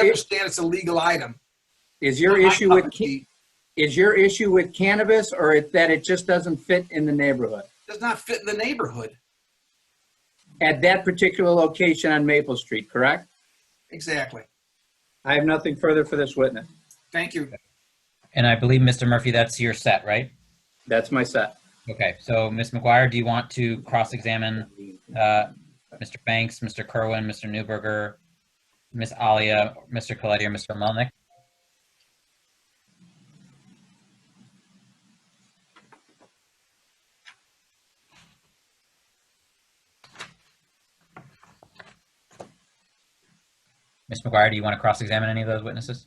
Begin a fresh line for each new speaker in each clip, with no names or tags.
understand it's a legal item.
Is your
Not my
issue
cup
with,
of
ca-
tea.
is your issue with cannabis or it- that it just doesn't fit in the neighborhood?
Does not fit in the neighborhood.
At that particular location on Maple Street, correct?
Exactly.
I have nothing further for this witness.
Thank you.
And I believe, Mr. Murphy, that's your set, right?
That's my set.
Okay, so Ms. McGuire, do you want to cross-examine uh, Mr. Banks, Mr. Kerwin, Mr. Newberger, Ms. Alia, Mr. Coletti, or Mr. Melnick? Ms. McGuire, do you want to cross-examine any of those witnesses?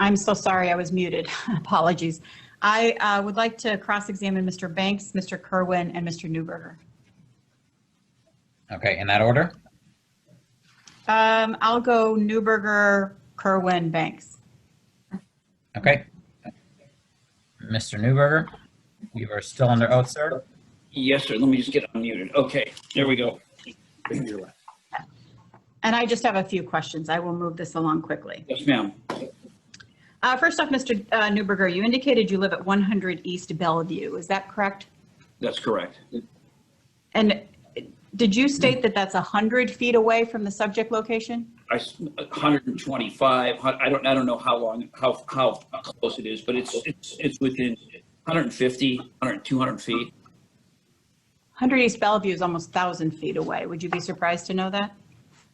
I'm so sorry, I was muted. Apologies. I uh, would like to cross-examine Mr. Banks, Mr. Kerwin, and Mr. Newberger.
Okay, in that order?
Um, I'll go Newberger, Kerwin, Banks.
Okay. Mr. Newberger, you are still under oath, sir.
Yes, sir. Let me just get unmuted. Okay, there we go.
And I just have a few questions. I will move this along quickly.
Yes, ma'am.
Uh, First off, Mr. uh, Newberger, you indicated you live at 100 East Bellevue. Is that correct?
That's correct.
And did you state that that's 100 feet away from the subject location?
I, s- 125, hun- I don't, I don't know how long, how, how close it is, but it's, it's, it's within 150, 100, 200 feet.
100 East Bellevue is almost 1,000 feet away. Would you be surprised to know that?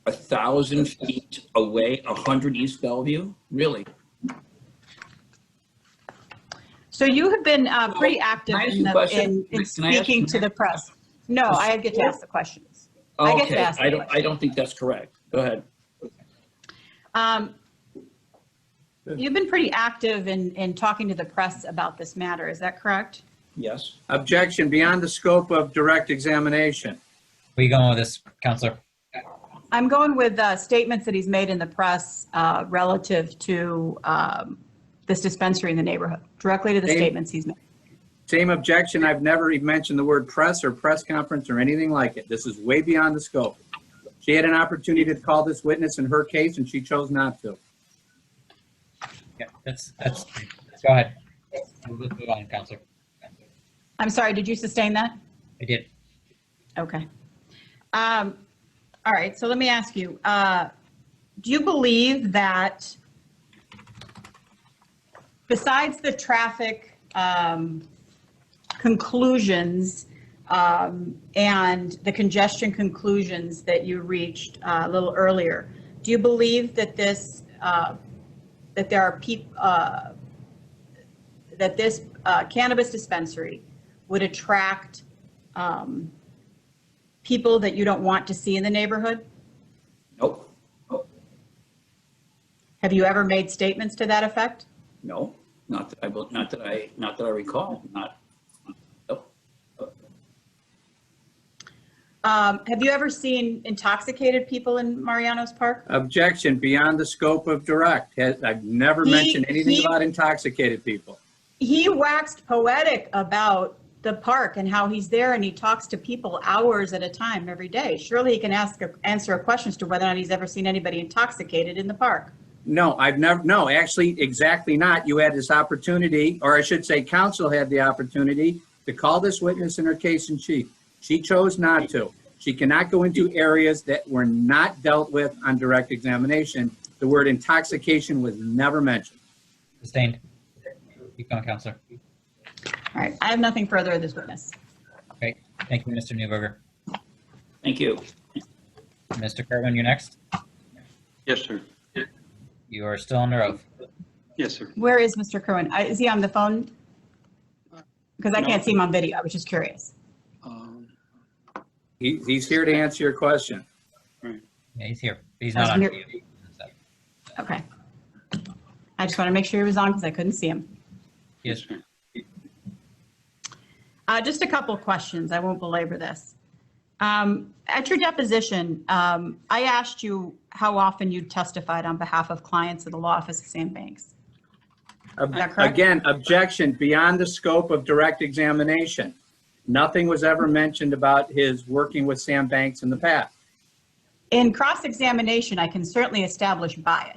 A thousand feet away, 100 East Bellevue? Really?
So you have been uh, pretty active
Can I ask
in
you a
the-
question?
in in
Can I ask-
speaking to the press. No, I get to ask the questions. I get to
Okay,
ask
I
the
don't, I don't think that's correct. Go ahead.
Um, You've been pretty active in, in talking to the press about this matter, is that correct?
Yes.
Objection beyond the scope of direct examination.
Where you going with this, Counselor?
I'm going with uh, statements that he's made in the press uh, relative to um, this dispensary in the neighborhood, directly to the
They-
statements he's made.
Same objection. I've never even mentioned the word press or press conference or anything like it. This is way beyond the scope. She had an opportunity to call this witness in her case and she chose not to.
Yeah, that's, that's, go ahead. Move move on, Counselor.
I'm sorry, did you sustain that?
I did.
Okay. Um, All right, so let me ask you, uh, do you believe that besides the traffic um, conclusions um, and the congestion conclusions that you reached uh, a little earlier, do you believe that this, uh, that there are peop, uh, that this uh, cannabis dispensary would attract um, people that you don't want to see in the neighborhood?
Nope,
Have you ever made statements to that effect?
no, not that I, will- not that I, not that I recall, not, nope.
Um, Have you ever seen intoxicated people in Mariano's Park?
Objection beyond the scope of direct. Has- I've never
He-
mentioned anything
he-
about intoxicated people.
He waxed poetic about the park and how he's there and he talks to people hours at a time every day. Surely he can ask, a- answer a question as to whether or not he's ever seen anybody intoxicated in the park.
No, I've never, no, actually, exactly not. You had this opportunity, or I should say, counsel had the opportunity to call this witness in her case in chief. She chose not to. She cannot go into areas that were not dealt with on direct examination. The word intoxication was never mentioned.
Sustained. Keep going, Counselor.
All right, I have nothing further of this witness.
Thank you, Mr. Newberger.
Thank you.
Mr. Kerwin, you're next.
Yes, sir.
You are still under oath.
Yes, sir.
Where is Mr. Kerwin? I- Is he on the phone? Because I
No.
can't see him on video. I was just curious.
Um,
He, he's here to answer your question.
Yeah, he's here. He's
I was
not on.
near-
mute.
Okay. I just want to make sure he was on because I couldn't see him.
Yes,
sir.
Uh, Just a couple of questions. I won't belabor this. Um, At your deposition, um, I asked you how often you testified on behalf of clients of the law office of Sam Banks.
Ob-
that correct?
Again, objection beyond the scope of direct examination. Nothing was ever mentioned about his working with Sam Banks in the past.
In cross-examination, I can certainly establish bias.